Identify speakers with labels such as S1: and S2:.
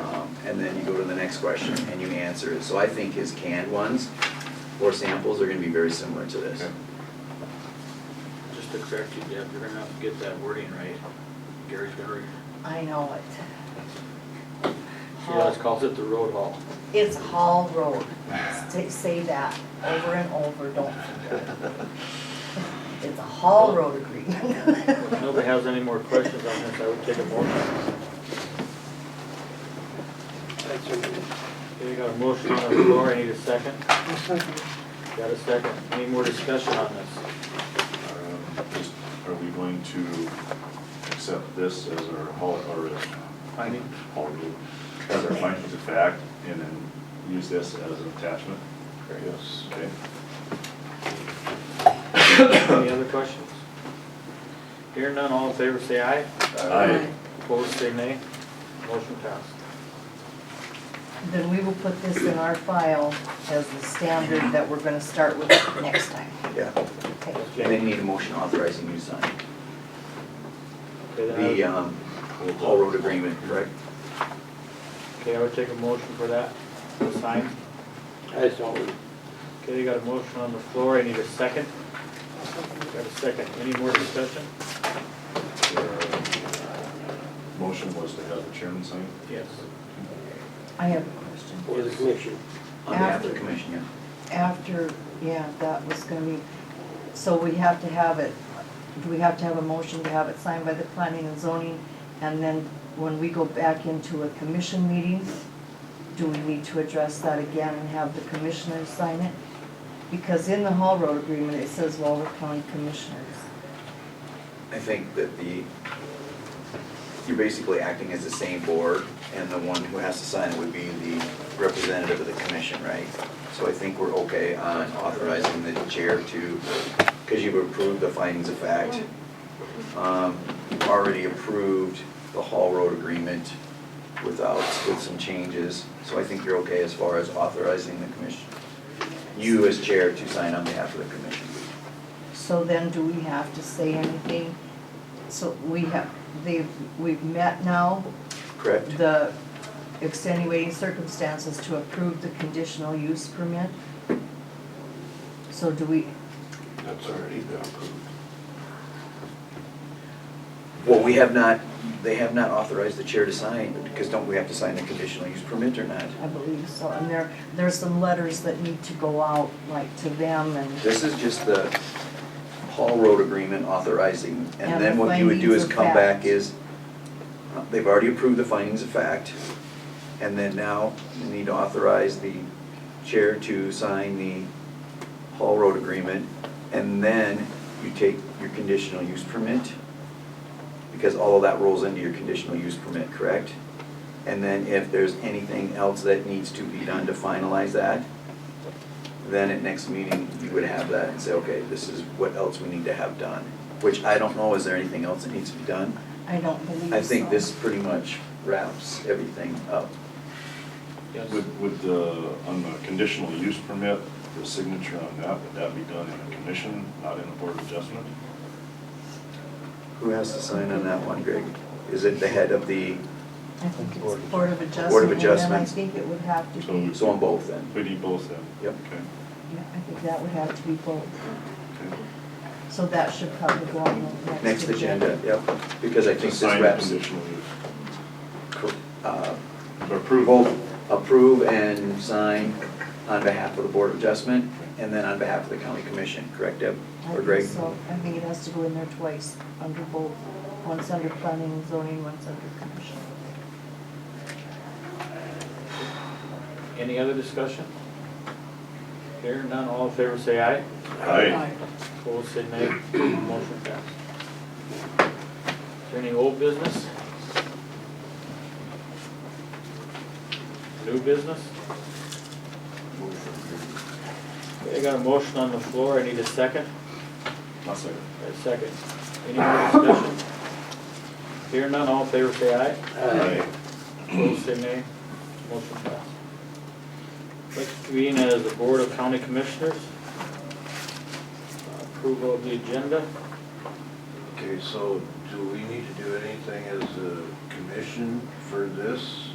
S1: Um, and then you go to the next question and you answer it. So I think his canned ones or samples are gonna be very similar to this.
S2: Just to correct you, Deb, you're gonna have to get that wording right. Gary's gonna, re-
S3: I know it.
S2: she always calls it the road hall.
S3: It's Hall Road. Say- Say that over and over, don't forget. It's a Hall Road agreement.
S2: If nobody has any more questions on this, I would take a motion. Okay, got a motion on the floor, I need a second. Got a second, any more discussion on this?
S4: Um, just, Are we going to accept this as our hall, or as,
S2: I need,
S4: hall rule, as our findings of fact, and then use this as an attachment? Yes. Okay.
S2: any other questions? Hearing none, all in favor say aye,
S4: Aye.
S2: opposed say nay, motion passed.
S3: Then we will put this in our file as the standard that we're gonna start with next time.
S1: Yeah.
S3: Okay.
S1: And
S2: Okay,
S1: then you need a motion authorizing you to sign
S2: okay, then I would-
S1: the, um, Hall Road agreement, correct?
S2: Okay, I would take a motion for that, the sign.
S5: I saw it.
S2: Okay, you got a motion on the floor, I need a second. Got a second, any more discussion?
S4: Motion was to have the chairman sign?
S2: Yes.
S3: I have a question.
S5: for the commission.
S1: On behalf of the
S3: After.
S1: commission, yeah.
S3: After, yeah, that was gonna be, so we have to have it, do we have to have a motion to have it signed by the planning and zoning? And then when we go back into a commission meeting, do we need to address that again and have the commissioners sign it? Because in the Hall Road agreement, it says Walworth County Commissioners.
S1: I think that the, you're basically acting as the same board, and the one who has to sign it would be the representative of the commission, right? So I think we're okay on authorizing the chair to, because you've approved the findings of fact. Um, You've already approved the Hall Road agreement without, with some changes, so I think you're okay as far as authorizing the commission, you as chair to sign on behalf of the commission.
S3: So then do we have to say anything? So we have, they've, we've met now,
S1: Correct?
S3: the extenuating circumstances to approve the conditional use permit. So do we,
S5: That's already been approved.
S1: Well, we have not, they have not authorized the chair to sign, because don't we have to sign the conditional use permit or not?
S3: I believe so, and there, there's some letters that need to go out, like to them and,
S1: This is just the Hall Road agreement authorizing, and
S3: And
S1: then
S3: the
S1: what you would do is
S3: findings of
S1: come back
S3: fact.
S1: is, uh, they've already approved the findings of fact, and then now you need to authorize the chair to sign the Hall Road agreement, and then you take your conditional use permit, because all of that rolls into your conditional use permit, correct? And then if there's anything else that needs to be done to finalize that, then at next meeting, you would have that and say, okay, this is what else we need to have done. Which I don't know, is there anything else that needs to be done?
S3: I don't believe so.
S1: I think this pretty much wraps everything up.
S2: Yes.
S4: Would, would the, on the conditional use permit, the signature on that, would that be done in a commission, not in a board of adjustment?
S1: Who has to sign on that one, Greg? Is it the head of the,
S3: I think it's Board of Adjustment.
S1: Board of
S3: And then I
S1: Adjustments.
S3: think it would have to
S4: So
S3: be,
S1: so on both then?
S4: We need both then?
S1: Yep.
S4: Okay,
S3: yeah, I think that would have to be both,
S4: okay.
S3: so that should probably go on the next.
S1: Next agenda, yep, because I think this
S4: Sign the
S1: wraps.
S4: Conditional use.
S1: uh,
S4: Approval.
S1: Approval, approve and sign on behalf of the Board of Adjustment, and then on behalf of the county commission, correct Deb?
S3: I
S1: Or
S3: think
S1: Greg?
S3: so. I think it has to go in there twice, under both, once under planning and zoning, once under commission.
S2: Any other discussion? Hearing none, all in favor say aye,
S4: Aye.
S2: opposed say nay, motion passed. Is there any old business? New business? Okay, I got a motion on the floor, I need a second.
S4: I'll second.
S2: Got a second. Any more discussion? Hearing none, all in favor say aye.
S5: Uh,
S4: Aye.
S2: Opposed, say nay. Motion passed. Let's convene as the Board of County Commissioners. Approval of the agenda.
S6: Okay, so do we need to do anything as a commission for this?